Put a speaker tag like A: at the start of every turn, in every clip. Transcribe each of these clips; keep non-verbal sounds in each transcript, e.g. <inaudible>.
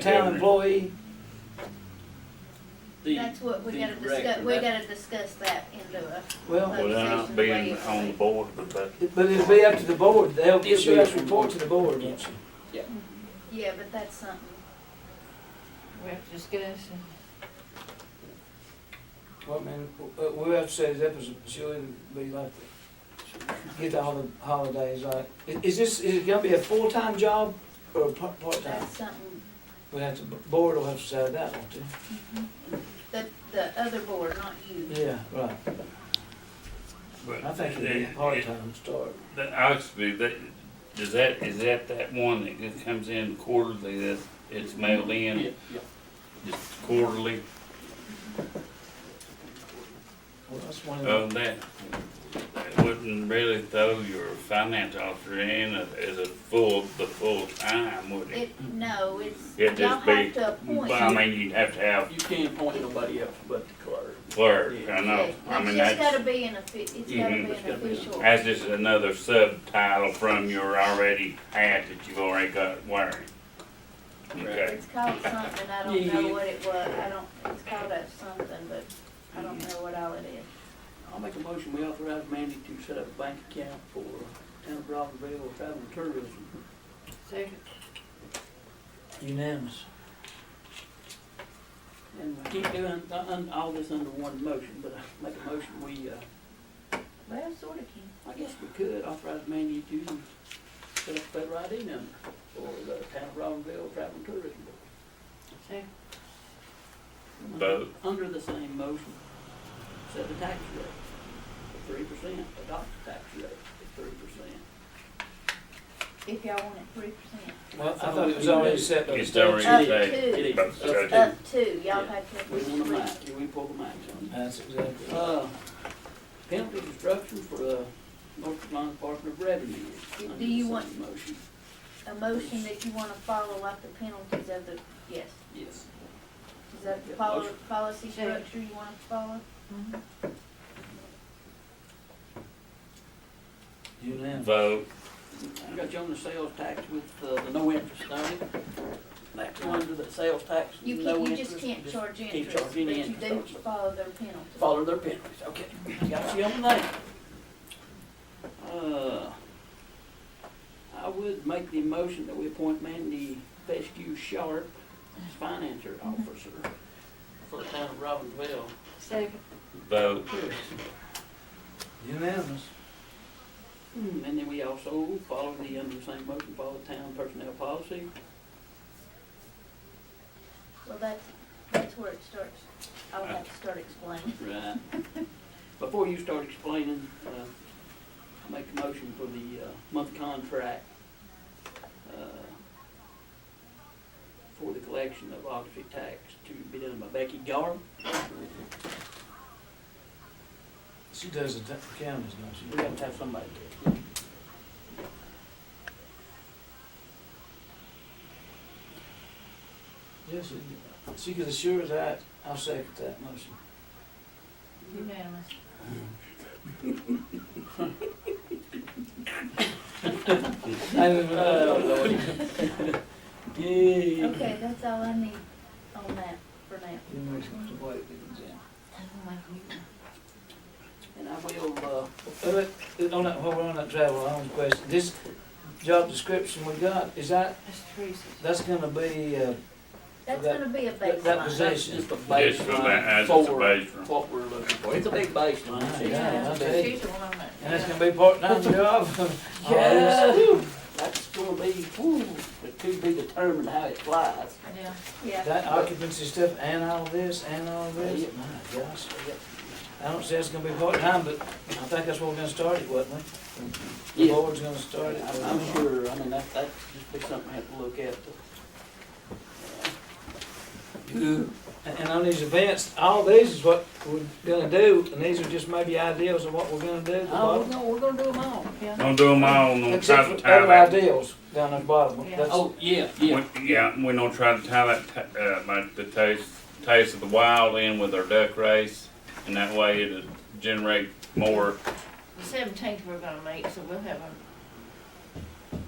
A: town employee?
B: The-
C: That's what we
B: the
C: gotta discuss,
B: director,
C: we
B: that-
C: gotta discuss that in the,
A: Well,
D: Well, they're not being on the board, but that,
A: it- but it'd be up to the board, they'll
B: Yes,
A: give us
B: sir.
A: report to the board, won't you?
C: yeah, but that's something.
E: We have to discuss and
A: Well, man, w- we'll have to set it up as, a- she'll either be like, the- get all the holidays, like, i- is this, is it gonna be a full-time job or a par- part-time?
C: That's something,
A: We'll have to, board will have to decide that, won't they?
C: the, the other board, not you.
A: Yeah, right,
D: but.
A: I think it'd be a part-time start.
D: That, actually, that, is that, is that that one that just comes in quarterly, that it's mailed
B: Yeah,
D: in,
B: yeah.
D: it's quarterly,
A: Well, that's one of the,
D: oh, that, that wouldn't really throw your finance officer in as a full, the full time, would it?
C: It, no, it's,
D: It'd
C: y'all
D: just be-
C: have to
D: But
C: appoint.
D: I mean, you'd have to have
B: You can't appoint nobody else but the clerk.
D: clerk, I know,
C: It's
D: I mean,
C: just
D: that's,
C: gotta be an offi, it's gotta be
D: Mhm.
C: an
B: Mm-hmm. It's gotta be an-
C: official.
D: that's just another subtitle from your already hat that you've already got wearing. Okay.
C: It's called something, I don't
B: Yeah.
C: know what it was, I don't, it's called a something, but I don't know what all it is.
B: I'll make a motion, we authorize Mandy to set up a bank account for town of Robbinsville travel and tourism.
E: second,
A: unanimous.
B: And we keep doing, uh, un- all this under one motion, but I make a motion, we, uh,
C: Well, sort of can.
B: I guess we could authorize Mandy to set up a federal ID number for the town of Robbinsville travel and tourism.
E: second,
B: Under-
D: Vote.
B: Under the same motion, set the tax rate at three percent, adopt the tax rate at three percent.
C: If y'all want it three percent.
A: Well, I thought it was already set up.
D: It's already
C: Up
D: said.
C: to,
B: It is.
D: Okay.
C: up to, y'all
B: Yeah.
C: have to.
B: We want a
C: approve.
B: match, we pull the match on
A: That's exactly.
B: that. Uh, penalty destruction for the North Carolina Department of Revenue. Under
C: Do you
B: the
C: want-
B: same Motion,
C: a motion that you wanna follow up the penalties of the, yes.
B: yes.
C: Is that the
B: Yeah,
C: poli-
B: motion.
C: policy
E: Sure.
C: structure you wanna follow?
A: Unanimous.
D: Vote,
B: I got you on the sales tax with uh, the no interest on it. That's under the sales tax,
C: You
B: no
C: can't, you
B: interest.
C: just can't charge
B: can't
C: interest,
B: charge
C: but
B: any
C: you
B: interest
C: do
B: on it.
C: follow their penalty.
B: Follow their penalties, okay. Got you on that. Uh, I would make the motion that we appoint Mandy Fescue Sharp as financier
C: Mm-hmm.
B: officer for the town of Robbinsville.
E: second,
D: vote,
A: Unanimous.
B: And then we also follow the, under the same motion, follow the town personnel policy.
C: Well, that's, that's where it starts. I'll have to start explaining.
B: Right. Before you start explaining, uh, I make a motion for the, uh, month contract, uh, for the collection of auxiliary tax to be done by Becky Gar.
A: She does the ta- counties, don't she?
B: We have to have somebody do it.
A: Yes, it- she could assure that, I'll second that motion.
E: unanimous.
B: Yay.
C: Okay, that's all I need on that for now.
B: And I will, uh,
A: Uh, On that, while we're on that travel, I have a question, this job description we got, is that,
E: That's Teresa's.
A: that's gonna be, uh,
C: That's
A: That-
C: gonna be a
A: that- that
C: baseline.
A: was
B: that's just a
D: Just for that,
B: baseline
D: as it's a
B: for
D: baseline.
B: what we're looking for. It's a big baseline.
A: Yeah,
E: Yeah,
A: I bet.
E: she's the one that.
A: and that's gonna be
B: <laughs>
A: part-time job? Oh,
B: Yeah.
A: yes. Whew.
B: That's gonna be, whew, it could be determined how it flies.
E: Yeah,
C: Yeah,
A: That occupancy stuff and all this, and all this,
B: Yeah.
A: my gosh. I don't say it's gonna be part-time, but I think that's where we're gonna start it, wasn't we? The
B: Yeah.
A: board's gonna start it.
B: I'm I'm sure, I mean, that, that's just be something I have to look at.
A: And, and on these events, all these is what we're gonna do, and these are just maybe ideals of what we're gonna do. at the
B: Oh,
A: bottom.
B: no, we're gonna do them all.
E: yeah.
D: don't do them all, and don't try
A: Except
D: to
A: for
D: tie
A: other
D: that
A: ideals down at the bottom.
E: Yeah.
A: That's-
B: Oh, yeah, yeah.
D: We- Yeah, we don't try to tie that, ta- uh, my, the taste, taste of the wild in with our duck race, and that way it'll generate more.
E: The seventeenth we're gonna meet, so we'll have an,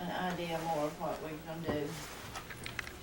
E: an idea more of what we're gonna do.